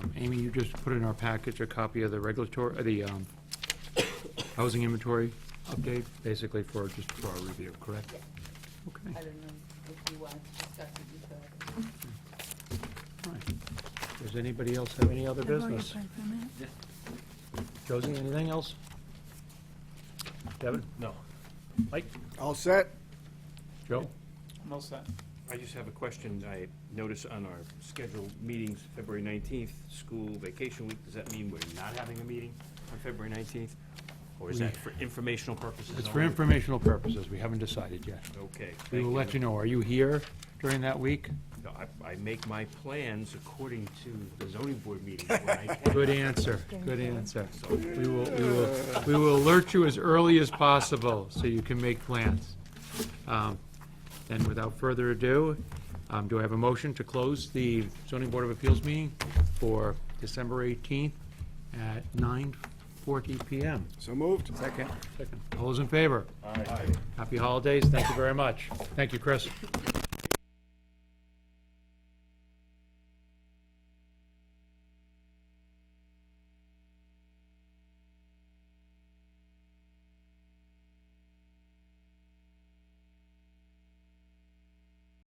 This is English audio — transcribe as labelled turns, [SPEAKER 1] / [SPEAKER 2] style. [SPEAKER 1] Amy, you just put in our package a copy of the regulatory, uh, the um, housing inventory update, basically for, just for our review, correct?
[SPEAKER 2] I
[SPEAKER 1] Okay,
[SPEAKER 2] don't know if you want to discuss it, you could.
[SPEAKER 1] all right. Does anybody else have any other business? Josie, anything else? Devin?
[SPEAKER 3] No.
[SPEAKER 1] Mike?
[SPEAKER 4] All set?
[SPEAKER 1] Joe?
[SPEAKER 5] I'm all set.
[SPEAKER 3] I just have a question. I noticed on our scheduled meetings, February 19th, school vacation week, does that mean we're not having a meeting on February 19th? Or is that for informational purposes?
[SPEAKER 1] It's for
[SPEAKER 3] only?
[SPEAKER 1] informational purposes, we haven't decided yet.
[SPEAKER 3] Okay.
[SPEAKER 1] We will let you know, are you here during that week?
[SPEAKER 3] know. I make my plans according to the zoning board meeting when I can.
[SPEAKER 1] Good answer, good answer. We will, we will, we will alert you as early as possible so you can make plans. Um, And without further ado, um, do I have a motion to close the zoning board of appeals meeting for December 18th at 9:40 PM?
[SPEAKER 4] So moved.
[SPEAKER 1] All those in favor? Happy holidays, thank you very much. Thank you, Chris.